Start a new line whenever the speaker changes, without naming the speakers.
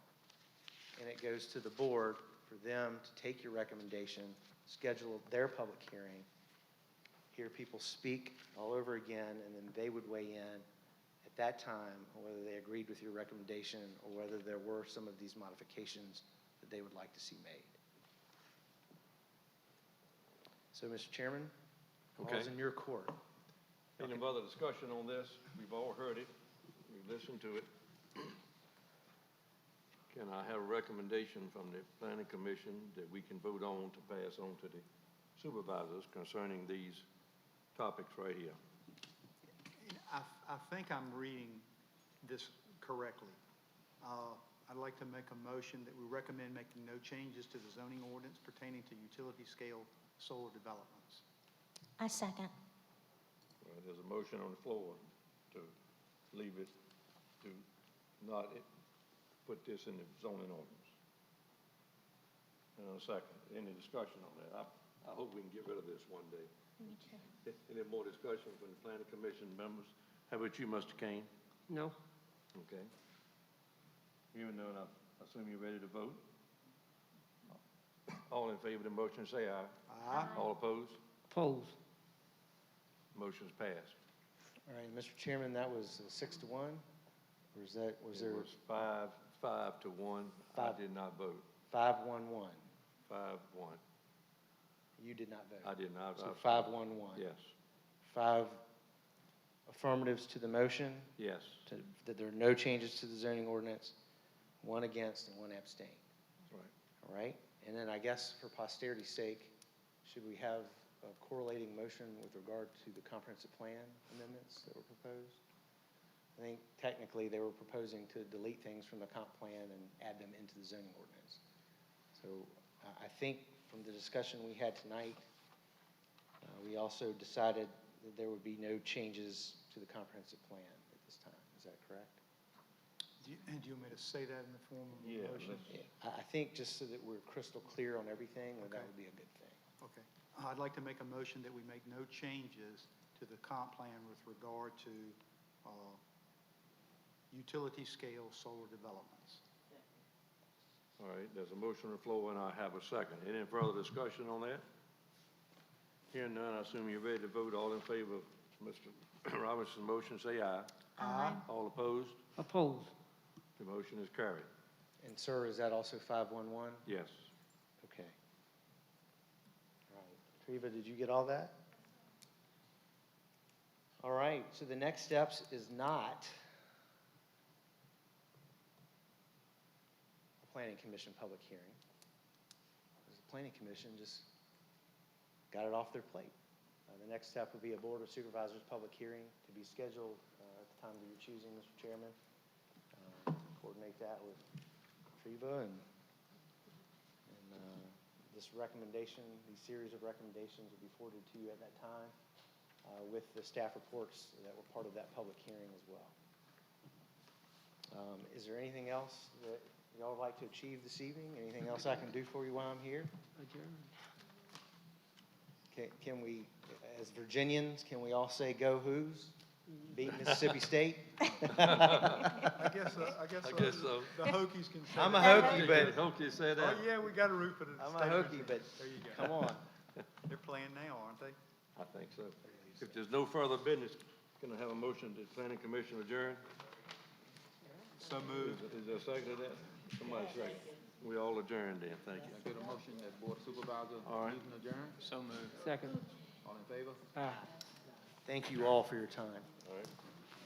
and it goes to the board for them to take your recommendation, schedule their public hearing, hear people speak all over again, and then they would weigh in at that time, on whether they agreed with your recommendation or whether there were some of these modifications that they would like to see made. So, Mr. Chairman, all's
Okay.
in your court.
Any other discussion on this? We've all heard it, we've listened to it. Can I have a recommendation from the planning commission that we can vote on to pass on to the supervisors concerning these topics right here?
I, I think I'm reading this correctly. Uh, I'd like to make a motion that we recommend making no changes to the zoning ordinance pertaining to utility-scale solar developments.
I second.
Well, there's a motion on the floor to leave it, to not i- put this in the zoning ordinance. And a second, any discussion on that? I, I hope we can get rid of this one day. Any more discussion from the planning commission members? How about you, Mr. Kane?
No,
Okay. Even though, I assume you're ready to vote? All in favor of the motion, say aye.
Aye.
All opposed?
pose.
Motion's passed.
All right, Mr. Chairman, that was uh, six to one? Or is that, was there
It was five, five to one. I
Five.
did not vote.
five, one, one?
Five, one.
You did not
I
vote.
did not.
So
vote.
five, one, one?
Yes,
Five affirmatives to the motion,
yes.
to- that there are no changes to the zoning ordinance, one against and one abstain.
Right.
All right? And then I guess for posterity's sake, should we have a correlating motion with regard to the comprehensive plan amendments that were proposed? I think technically they were proposing to delete things from the comp plan and add them into the zoning ordinance. So I, I think from the discussion we had tonight, uh, we also decided that there would be no changes to the comprehensive plan at this time. Is that correct?
Do you, do you want me to say that in the form of
Yeah,
a motion?
let's-
Yeah, I, I think just so that we're crystal clear on everything, that that
Okay.
would be a good thing.
Okay. I'd like to make a motion that we make no changes to the comp plan with regard to, uh, utility-scale solar developments.
All right, there's a motion on the floor, and I have a second. Any further discussion on that? Hearing none, I assume you're ready to vote. All in favor of Mr. Robinson's motion, say aye.
Aye.
All opposed?
Oppose.
The motion is carried.
And sir, is that also five-one-one?
Yes.
Okay. All right. Triva, did you get all that? All right, so the next steps is not a planning commission public hearing. 'Cause The planning commission just got it off their plate. Uh, the next step would be a board of supervisors public hearing to be scheduled, uh, at the time that you're choosing, Mr. Chairman. Uh, Coordinate that with Triva and and uh, this recommendation, these series of recommendations will be forwarded to you at that time uh, with the staff reports that were part of that public hearing as well. Um, Is there anything else that y'all would like to achieve this evening? Anything else I can do for you while I'm here?
Adjourn.
Can- Can we, as Virginians, can we all say "Go Who's"? Beat Mississippi State?
I guess, uh, I guess,
I
uh,
guess so.
the Hokies can say
I'm a
that.
Hokey, but,
Hope you said that.
Oh, yeah, we got a root for the
I'm a
state of
Hokie,
Virginia.
but
There you go.
come on.
They're playing now, aren't they?
I think so. If there's no further business, can I have a motion to planning commission adjourn?
So
Is
moved.
is there a second to that? Somebody second. We all adjourned then, thank you.
Get a motion that Board of Supervisors
All right.
meeting adjourned.
Second.
All in favor?
Aye.
Thank you all for your time.
All right.